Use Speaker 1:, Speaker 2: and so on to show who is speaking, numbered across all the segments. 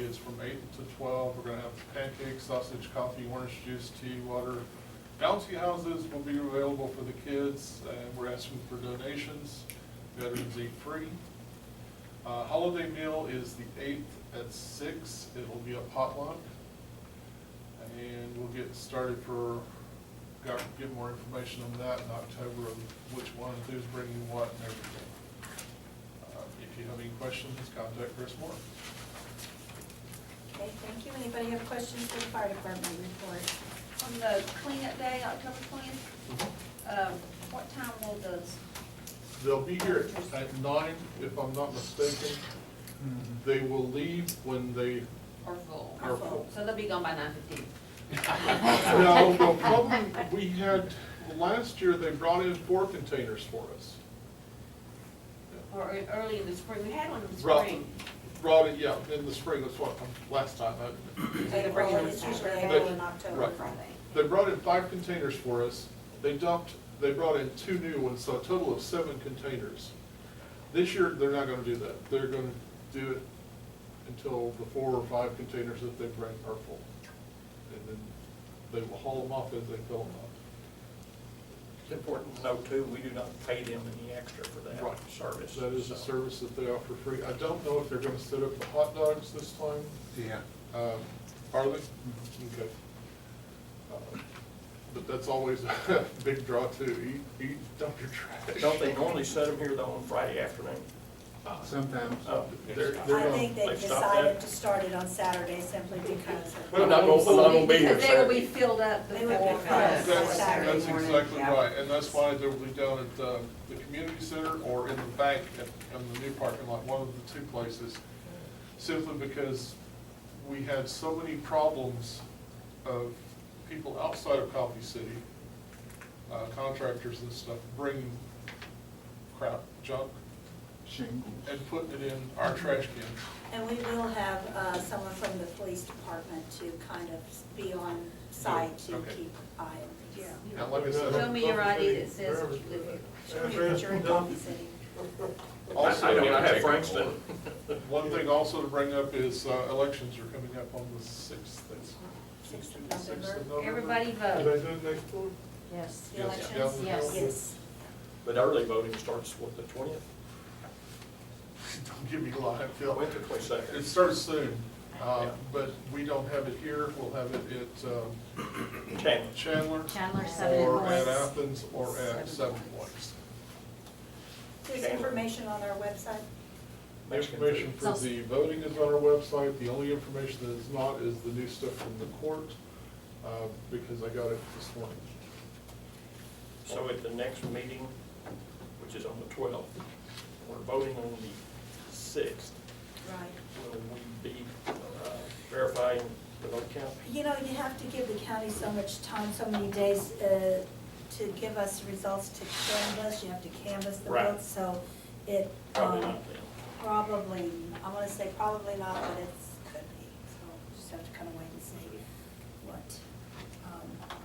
Speaker 1: is from eight to twelve. We're gonna have pancakes, sausage, coffee, orange juice, tea, water. Bouncy houses will be available for the kids, and we're asking for donations. Veterans eat free. Uh, Holiday meal is the eighth at six. It'll be a potluck. And we'll get started for, got, get more information on that in October, of which one, who's bringing what and everything. Uh, If you have any questions, contact Chris Moore.
Speaker 2: Okay, thank you. Anybody have questions for the fire department report?
Speaker 3: On the cleanup day, October twentieth, um, what time will the,
Speaker 1: They'll be here at nine, if I'm not mistaken.
Speaker 4: Mm-hmm.
Speaker 1: They will leave when they,
Speaker 3: are full?
Speaker 1: Are full.
Speaker 3: So they'll be gone by nine fifteen?
Speaker 1: now, the problem, we had, last year, they brought in four containers for us.
Speaker 3: Or e- early in the spring, we had one in the
Speaker 1: Brought-
Speaker 3: spring.
Speaker 1: Brought it, yeah, in the spring, that's what, last time, I,
Speaker 3: they're bringing them
Speaker 2: It's usually
Speaker 3: Saturday.
Speaker 2: April and October,
Speaker 1: Right.
Speaker 2: Friday.
Speaker 1: They brought in five containers for us. They dumped, they brought in two new ones, so a total of seven containers. This year, they're not gonna do that. They're gonna do it until the four or five containers that they bring are full. And then they will haul them off as they fill them up.
Speaker 5: It's important to note too, we do not pay them any extra for that
Speaker 1: Right.
Speaker 5: service.
Speaker 1: That is a
Speaker 5: so.
Speaker 1: service that they offer free. I don't know if they're gonna set up the hot dogs this time.
Speaker 4: Yeah.
Speaker 1: Um, Are they? Mm-hmm. Okay. Uh, But that's always a big draw too. Eat, eat, dump your trash.
Speaker 5: Don't they normally set them here though on Friday afternoon?
Speaker 1: Uh,
Speaker 4: Sometimes.
Speaker 5: Oh, they're, they're
Speaker 2: I
Speaker 5: gonna,
Speaker 2: think they
Speaker 5: they've stopped
Speaker 2: decided
Speaker 5: that?
Speaker 2: to start it on Saturday simply because of.
Speaker 5: Well, not gonna, not gonna be here
Speaker 3: Because they will be
Speaker 5: Saturday.
Speaker 3: filled up
Speaker 2: They would be
Speaker 3: before.
Speaker 2: filled up.
Speaker 1: That's,
Speaker 2: Saturday
Speaker 1: that's
Speaker 2: morning,
Speaker 1: exactly
Speaker 2: yeah.
Speaker 1: right, and that's why they'll be down at uh, the community center or in the bank at, in the new parking lot, one of the two places. Simply because we had so many problems of people outside of Coffee City, uh, contractors and stuff, bringing crap, junk,
Speaker 4: Shingles.
Speaker 1: and putting it in our trash can.
Speaker 2: And we will have uh, someone from the police department to kind of be on site to
Speaker 1: Okay.
Speaker 2: keep eye on these.
Speaker 3: Yeah.
Speaker 1: Now, like I said,
Speaker 3: Show me your ID
Speaker 1: Coffee
Speaker 3: that
Speaker 1: City,
Speaker 3: says that
Speaker 1: wherever-
Speaker 3: you live here.
Speaker 2: Show me that you're in Coffee City.
Speaker 1: Also-
Speaker 5: I I mean, I have Frankston.
Speaker 1: One thing also to bring up is uh, elections are coming up on the sixth.
Speaker 2: Sixth of November.
Speaker 3: Everybody vote.
Speaker 1: Did I do it next door?
Speaker 6: Yes.
Speaker 2: The
Speaker 1: Yes.
Speaker 2: elections?
Speaker 1: Yeah.
Speaker 6: Yes.
Speaker 2: Yes.
Speaker 5: But early voting starts, what, the twentieth?
Speaker 1: Don't give me a lie, Phil.
Speaker 5: Wait till
Speaker 1: It
Speaker 5: 22nd.
Speaker 1: starts soon, uh,
Speaker 5: Yeah.
Speaker 1: but we don't have it here. We'll have it at um,
Speaker 5: Challenge.
Speaker 1: Chandler.
Speaker 6: Chandler, Seven
Speaker 1: Or at
Speaker 6: Points.
Speaker 1: Athens, or at
Speaker 6: Seven
Speaker 1: Seven Points.
Speaker 2: There's information on our website.
Speaker 5: Mexican
Speaker 1: Information
Speaker 5: food.
Speaker 1: for the voting is on our website. The only information that is not is the new stuff from the court, uh, because I got it this morning.
Speaker 5: So at the next meeting, which is on the twelfth, we're voting on the sixth,
Speaker 2: Right.
Speaker 5: will we be uh, verifying the vote count?
Speaker 2: You know, you have to give the county so much time, so many days uh, to give us results to canvas. You have to canvas the
Speaker 5: Right.
Speaker 2: votes, so it.
Speaker 5: Probably
Speaker 2: um,
Speaker 5: not then.
Speaker 2: Probably, I want to say probably not, but it's, could be, so just have to kind of wait and see what. um,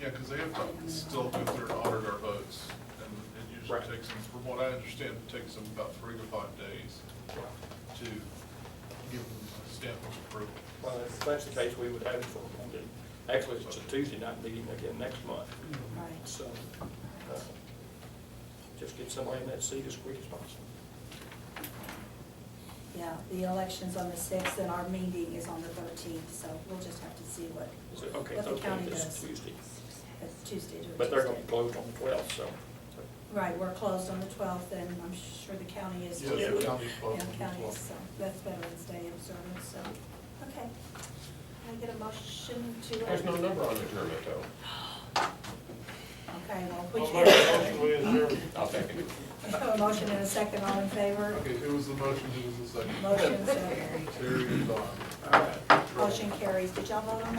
Speaker 1: Yeah, because they have to still go through and audit our votes, and it usually
Speaker 5: Right.
Speaker 1: takes them, from what I understand, it takes them about three to five days to give them a stamp of approval.
Speaker 5: Well, if that's the case, we would have it for Monday. Actually, it's a Tuesday night meeting again next month,
Speaker 2: Right.
Speaker 5: so uh, just get somebody in that seat as quick as possible.
Speaker 2: Yeah, the election's on the sixth and our meeting is on the thirteenth, so we'll just have to see what,
Speaker 5: Is it- Okay,
Speaker 2: But the county
Speaker 5: okay, this
Speaker 2: does.
Speaker 5: is Tuesday.
Speaker 2: it's Tuesday to Tuesday.
Speaker 5: But they're gonna be closed on the twelfth, so.
Speaker 2: Right, we're closed on the twelfth and I'm sure the county is.
Speaker 1: Yeah,
Speaker 2: too.
Speaker 5: the
Speaker 1: county's closed
Speaker 2: Yeah,
Speaker 1: on the
Speaker 2: county,
Speaker 1: 12th.
Speaker 2: so that's Veterans Day observance, so, okay. Can I get a motion to?
Speaker 5: on the permit, though.
Speaker 2: Okay, well,
Speaker 1: I'll make
Speaker 2: which.
Speaker 1: a motion, we adjourn.
Speaker 5: I'll take it.
Speaker 2: A motion and a second, all in favor?
Speaker 1: Okay, who was the motion, who was the second?
Speaker 2: Motion, second.
Speaker 1: Terry and Don.
Speaker 5: All right.
Speaker 2: Motion carries. Did y'all vote on that?